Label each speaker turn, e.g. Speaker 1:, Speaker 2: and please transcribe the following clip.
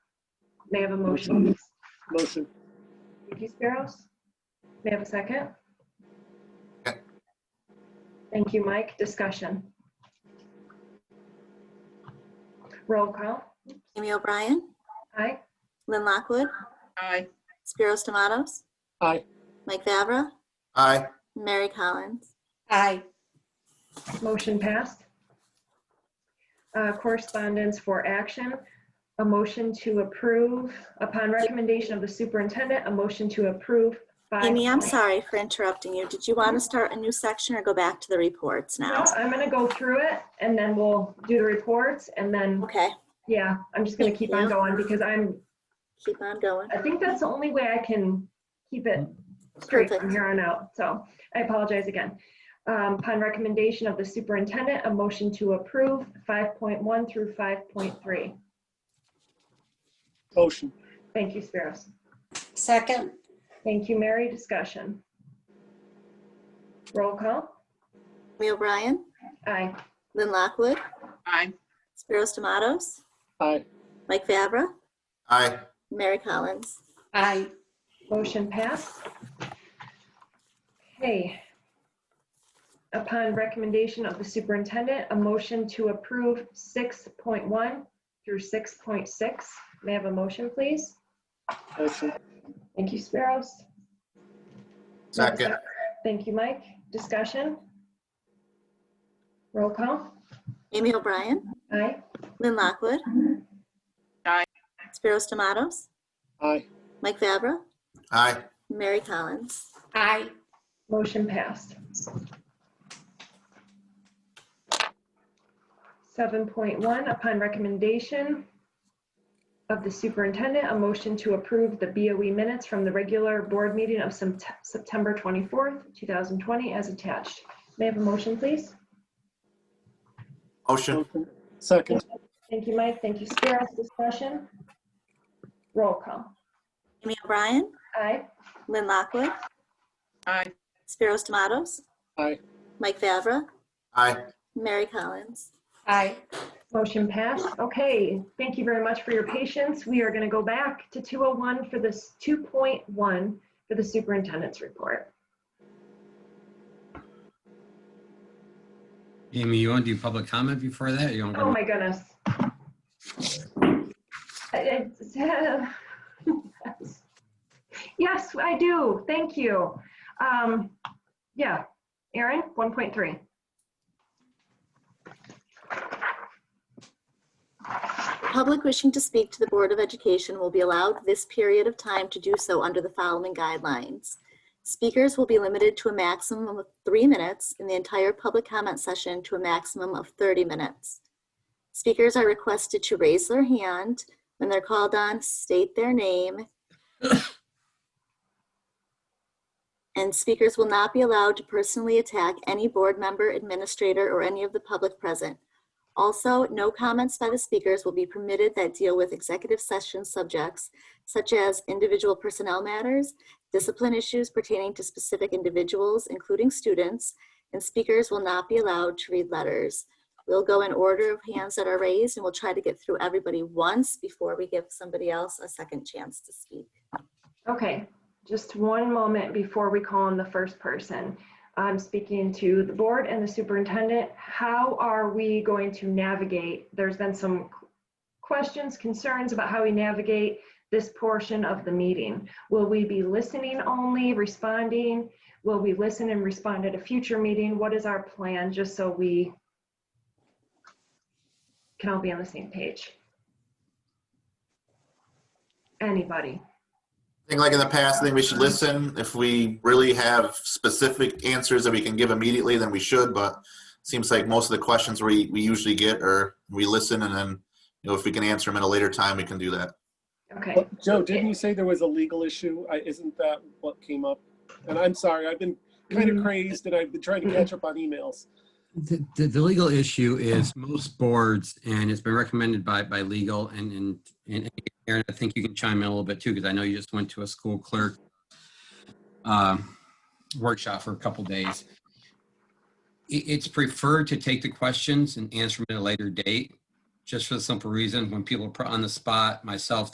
Speaker 1: May I have a motion?
Speaker 2: Motion.
Speaker 1: Thank you, Sparrows. May I have a second?
Speaker 3: Yeah.
Speaker 1: Thank you, Mike. Discussion. Roll call.
Speaker 4: Amy O'Brien,
Speaker 1: Aye.
Speaker 4: Lynn Lockwood,
Speaker 5: Aye.
Speaker 4: Spiros Tomatoes,
Speaker 2: Aye.
Speaker 4: Mike Fabra,
Speaker 3: Aye.
Speaker 4: Mary Collins.
Speaker 5: Aye.
Speaker 1: Motion passed. Uh, Correspondence for action, a motion to approve, upon recommendation of the superintendent, a motion to approve. five-
Speaker 4: Amy, I'm sorry for interrupting you. Did you want to start a new section or go back to the reports
Speaker 1: No,
Speaker 4: now?
Speaker 1: I'm going to go through it and then we'll do the reports and then,
Speaker 4: Okay,
Speaker 1: yeah, I'm just going to keep on going because I'm,
Speaker 4: keep on going.
Speaker 1: I think that's the only way I can keep it straight from
Speaker 4: Perfect.
Speaker 1: here on out. So I apologize again. Um, Upon recommendation of the superintendent, a motion to approve 5.1 through 5.3.
Speaker 2: Motion.
Speaker 1: Thank you, Spiros.
Speaker 5: Second.
Speaker 1: Thank you, Mary. Discussion. Roll call.
Speaker 4: Amy O'Brien,
Speaker 1: Aye.
Speaker 4: Lynn Lockwood,
Speaker 5: Aye.
Speaker 4: Spiros Tomatoes,
Speaker 2: Aye.
Speaker 4: Mike Fabra,
Speaker 3: Aye.
Speaker 4: Mary Collins.
Speaker 5: Aye.
Speaker 1: Motion passed. Okay. Upon recommendation of the superintendent, a motion to approve 6.1 through 6.6. May I have a motion, please?
Speaker 2: Motion.
Speaker 1: Thank you, Sparrows.
Speaker 3: Second.
Speaker 1: Thank you, Mike. Discussion? Roll call.
Speaker 4: Amy O'Brien,
Speaker 1: Aye.
Speaker 4: Lynn Lockwood.
Speaker 5: Aye.
Speaker 4: Spiros Tomatoes,
Speaker 2: Aye.
Speaker 4: Mike Fabra,
Speaker 3: Aye.
Speaker 4: Mary Collins.
Speaker 5: Aye.
Speaker 1: Motion passed. 7.1, upon recommendation of the superintendent, a motion to approve the BOE minutes from the regular board meeting of Sept- September 24th, 2020, as attached. May I have a motion, please?
Speaker 3: Motion.
Speaker 2: Motion. Second.
Speaker 1: Thank you, Mike. Thank you, Spiros. Discussion? Roll call.
Speaker 4: Amy O'Brien,
Speaker 1: Aye.
Speaker 4: Lynn Lockwood,
Speaker 5: Aye.
Speaker 4: Spiros Tomatoes,
Speaker 2: Aye.
Speaker 4: Mike Fabra,
Speaker 3: Aye.
Speaker 4: Mary Collins.
Speaker 5: Aye.
Speaker 1: Motion passed. Okay, thank you very much for your patience. We are going to go back to 201 for this 2.1 for the superintendent's report.
Speaker 6: Amy, you want to do public comment before that? You want
Speaker 1: Oh,
Speaker 6: to?
Speaker 1: my goodness. It's- Yes, I do. Thank you. Um, Yeah, Erin, 1.3.
Speaker 4: Public wishing to speak to the Board of Education will be allowed this period of time to do so under the following guidelines. Speakers will be limited to a maximum of three minutes and the entire public comment session to a maximum of 30 minutes. Speakers are requested to raise their hand. When they're called on, state their name. And speakers will not be allowed to personally attack any board member, administrator, or any of the public present. Also, no comments by the speakers will be permitted that deal with executive session subjects such as individual personnel matters, discipline issues pertaining to specific individuals, including students, and speakers will not be allowed to read letters. We'll go in order of hands that are raised and we'll try to get through everybody once before we give somebody else a second chance to speak.
Speaker 1: Okay, just one moment before we call on the first person. I'm speaking to the board and the superintendent. How are we going to navigate? There's been some questions, concerns about how we navigate this portion of the meeting. Will we be listening only, responding? Will we listen and respond at a future meeting? What is our plan, just so we can all be on the same page? Anybody?
Speaker 3: I think like in the past, I think we should listen. If we really have specific answers that we can give immediately, then we should, but it seems like most of the questions we, we usually get are, we listen and then, you know, if we can answer them at a later time, we can do that.
Speaker 1: Okay.
Speaker 2: But, Joe, didn't you say there was a legal issue? I- Isn't that what came up? And I'm sorry, I've been kind of crazed and I've been trying to catch up on emails.
Speaker 6: The, the, the legal issue is most boards, and it's been recommended by, by legal, and, and, and Aaron, I think you can chime in a little bit too, because I know you just went to a school clerk uh, workshop for a couple days. It, it's preferred to take the questions and answer them at a later date, just for the simple reason, when people are put on the spot, myself,